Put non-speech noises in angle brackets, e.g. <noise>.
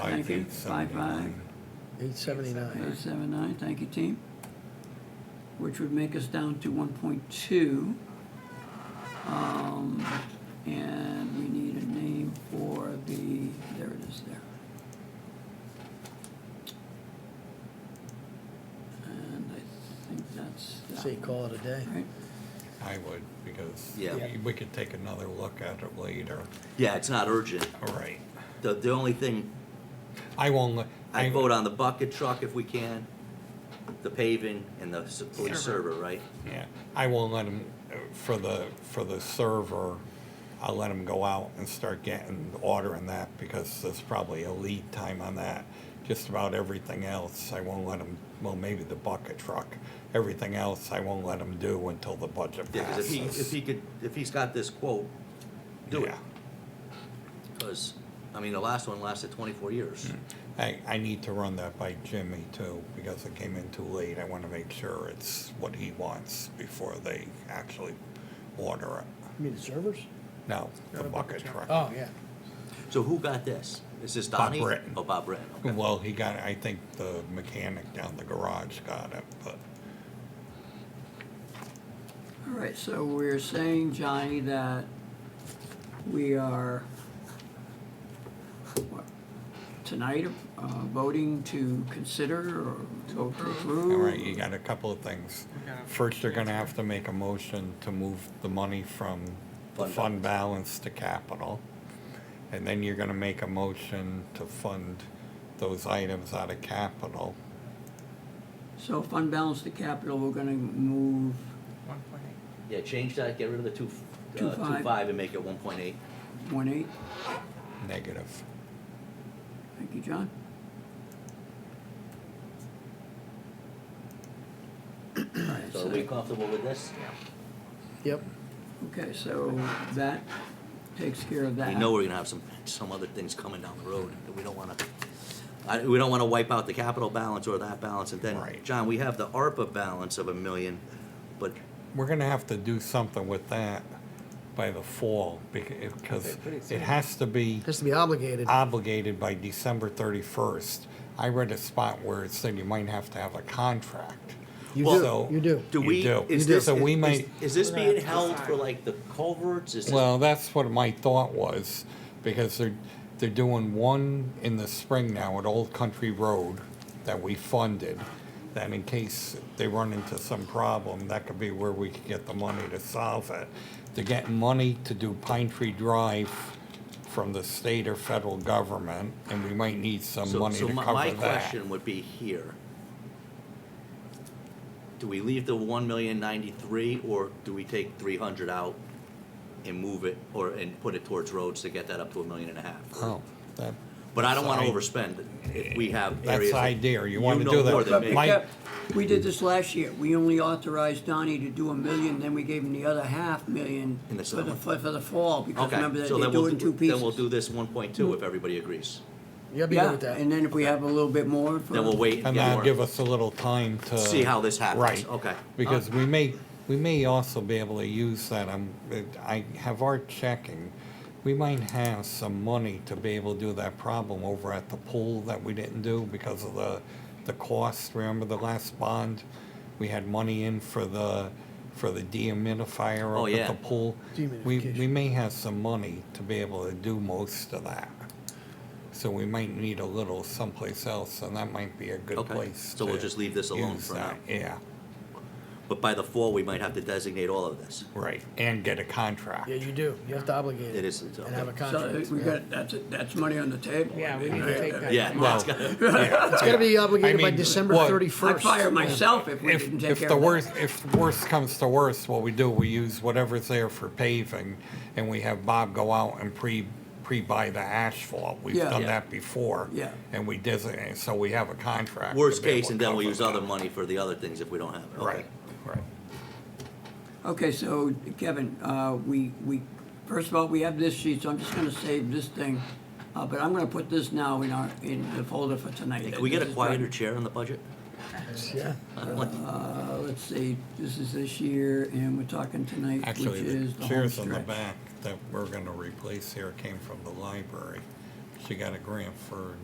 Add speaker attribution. Speaker 1: Thank you.
Speaker 2: 5879.
Speaker 3: 879.
Speaker 1: Eight oh seven nine, thank you, team. Which would make us down to one point two. Um, and we need a name for the, there it is there. And I think that's that.
Speaker 3: Say call it a day.
Speaker 1: Right,
Speaker 2: I would, because
Speaker 4: Yeah.
Speaker 2: we- we could take another look at it later.
Speaker 4: Yeah, it's not urgent.
Speaker 2: All right.
Speaker 4: The, the only thing,
Speaker 2: I won't. li-
Speaker 4: I vote on the bucket truck if we can, the paving and the s- police server, right?
Speaker 2: Yeah, I won't let him, for the, for the server, I'll let him go out and start getting, ordering that, because there's probably a lead time on that. Just about everything else, I won't let him, well, maybe the bucket truck. Everything else, I won't let him do until the budget
Speaker 4: Yeah, 'cause if he, if
Speaker 2: passes.
Speaker 4: he could, if he's got this quote, do it.
Speaker 2: Yeah.
Speaker 4: Because, I mean, the last one lasted twenty-four years.
Speaker 2: I, I need to run that by Jimmy too, because it came in too late. I want to make sure it's what he wants before they actually order it.
Speaker 3: You mean the servers?
Speaker 2: No, the bucket truck.
Speaker 3: Oh, yeah.
Speaker 4: So who got this? Is this
Speaker 2: Bob
Speaker 4: Donnie?
Speaker 2: Britton.
Speaker 4: Oh, Bob Britton, okay.
Speaker 2: Well, he got, I think the mechanic down the garage got it, but
Speaker 1: all right, so we're saying, Johnny, that we are, what, tonight, uh, voting to consider or vote to approve?
Speaker 2: All right, you got a couple of things.
Speaker 5: gotta-
Speaker 2: First, you're gonna have to make a motion to move the money from the
Speaker 4: Fund
Speaker 2: fund balance to capital. And then you're gonna make a motion to fund those items out of capital.
Speaker 1: So fund balance to capital, we're gonna move,
Speaker 5: One point eight.
Speaker 4: Yeah, change that, get rid of the two,
Speaker 1: Two
Speaker 4: uh,
Speaker 1: five.
Speaker 4: two-five and make it one point eight.
Speaker 1: one eight,
Speaker 2: Negative.
Speaker 1: thank you, John. Alright,
Speaker 4: So are we comfortable with this?
Speaker 3: Yep.
Speaker 1: Okay, so that takes care of that.
Speaker 4: We know we're gonna have some, some other things coming down the road that we don't wanna, I, we don't wanna wipe out the capital balance or that balance, and then,
Speaker 2: Right.
Speaker 4: John, we have the ARPA balance of a million, but
Speaker 2: We're gonna have to do something with that by the fall, because it has to be
Speaker 3: Has to be obligated.
Speaker 1: Uh,
Speaker 2: obligated by December thirty-first. I read a spot where it said you might have to have a contract.
Speaker 3: You
Speaker 2: Well,
Speaker 3: do,
Speaker 2: so-
Speaker 3: you do.
Speaker 4: do
Speaker 2: You
Speaker 4: we?
Speaker 2: do.
Speaker 4: is
Speaker 2: You do.
Speaker 4: this-
Speaker 2: So we
Speaker 4: is-
Speaker 2: might-
Speaker 4: Is this
Speaker 5: We're gonna have
Speaker 4: being
Speaker 5: to
Speaker 4: held for
Speaker 5: decide.
Speaker 4: like the culverts, is this,
Speaker 2: Well, that's what my thought was, because they're, they're doing one in the spring now at Old Country Road that we funded. That in case they run into some problem, that could be where we could get the money to solve it. They're getting money to do Pine Tree Drive from the state or federal government, and we might need some
Speaker 4: so,
Speaker 2: money
Speaker 4: so
Speaker 2: to
Speaker 4: my, my
Speaker 2: cover that.
Speaker 4: question would be here. Do we leave the one million ninety-three, or do we take three hundred out and move it, or, and put it towards roads to get that up to a million and a half?
Speaker 2: Oh, that.
Speaker 4: But I don't wanna
Speaker 2: that's-
Speaker 4: overspend if we have
Speaker 2: That's
Speaker 4: areas.
Speaker 2: the
Speaker 4: that-
Speaker 2: idea, you wanna
Speaker 4: know
Speaker 2: do that.
Speaker 4: more than me.
Speaker 2: My-
Speaker 1: Yeah, We did this last year. We only authorized Donnie to do a million, then we gave him the other half million
Speaker 4: In the
Speaker 1: for the,
Speaker 4: summer.
Speaker 1: for for the fall, because remember
Speaker 4: Okay,
Speaker 1: that
Speaker 4: so
Speaker 1: they
Speaker 4: then
Speaker 1: do
Speaker 4: we'll,
Speaker 1: it in two
Speaker 4: do- then we'll
Speaker 1: pieces.
Speaker 4: do this one point two if everybody agrees.
Speaker 3: You gotta be good
Speaker 1: Yeah,
Speaker 3: with that.
Speaker 1: and then if we have a little bit more for.
Speaker 4: Then we'll wait.
Speaker 2: And
Speaker 4: get
Speaker 2: that'll
Speaker 4: more-
Speaker 2: give us a little time to.
Speaker 4: See how this happens.
Speaker 2: Right.
Speaker 4: Okay. Uh-huh.
Speaker 2: Because we may, we may also be able to use that, um, I have our checking. We might have some money to be able to do that problem over at the pool that we didn't do because of the, the cost. Remember the last bond? We had money in for the, for the dehumidifier
Speaker 4: Oh,
Speaker 2: up at
Speaker 4: yeah.
Speaker 2: the pool. We, we
Speaker 3: Dehumidification.
Speaker 2: may have some money to be able to do most of that. So we might need a little someplace else, and that might be a good
Speaker 4: Okay.
Speaker 2: place.
Speaker 4: So we'll
Speaker 2: to
Speaker 4: just leave this alone
Speaker 2: use
Speaker 4: for now.
Speaker 2: that. Yeah,
Speaker 4: But by the fall, we might have to designate all of this.
Speaker 2: right, and get a contract. <laughs>
Speaker 3: Yeah, you do. You have to obligate it.
Speaker 4: It is- it's
Speaker 3: And have a
Speaker 4: okay.
Speaker 3: contract.
Speaker 1: So uh, we
Speaker 3: yeah.
Speaker 1: got, that's, it. that's money on the table.
Speaker 5: Yeah, we
Speaker 1: I
Speaker 5: need
Speaker 1: mean,
Speaker 5: to take that.
Speaker 4: Yeah.
Speaker 2: Well,
Speaker 4: that's gotta-
Speaker 2: <laughs> yeah.
Speaker 3: It's gotta be obligated
Speaker 2: I
Speaker 3: by
Speaker 2: mean,
Speaker 3: December
Speaker 2: what-
Speaker 1: I'd
Speaker 3: 31st.
Speaker 1: fire myself if we
Speaker 2: If,
Speaker 1: didn't take
Speaker 2: if
Speaker 1: care
Speaker 2: the
Speaker 1: of
Speaker 2: worst,
Speaker 1: that.
Speaker 2: if worst comes to worst, what we do, we use whatever's there for paving, and we have Bob go out and pre, pre-buy the asphalt. We've
Speaker 1: Yeah.
Speaker 2: done
Speaker 1: Yeah.
Speaker 2: that before.
Speaker 1: Yeah.
Speaker 2: And we designate, so we have a contract. to
Speaker 4: Worst
Speaker 2: be able
Speaker 4: case,
Speaker 2: to
Speaker 4: and then we'll
Speaker 2: cover
Speaker 4: use
Speaker 2: that.
Speaker 4: other money for the other things if we don't have it. Okay.
Speaker 2: Right, right.
Speaker 1: Okay, so Kevin, uh, we, we, first of all, we have this sheet, so I'm just gonna save this thing. Uh, but I'm gonna put this now in our, in the folder for tonight.
Speaker 4: Hey, Can we get a
Speaker 1: This is
Speaker 4: quieter
Speaker 1: done.
Speaker 4: chair on the budget?
Speaker 3: Yeah.
Speaker 4: I don't like-
Speaker 1: Uh, let's see, this is this year, and we're talking tonight, which
Speaker 2: Actually,
Speaker 1: is
Speaker 2: the
Speaker 1: the home
Speaker 2: chairs on the
Speaker 1: stretch.
Speaker 2: back that we're gonna replace here came from the library. She got a grant for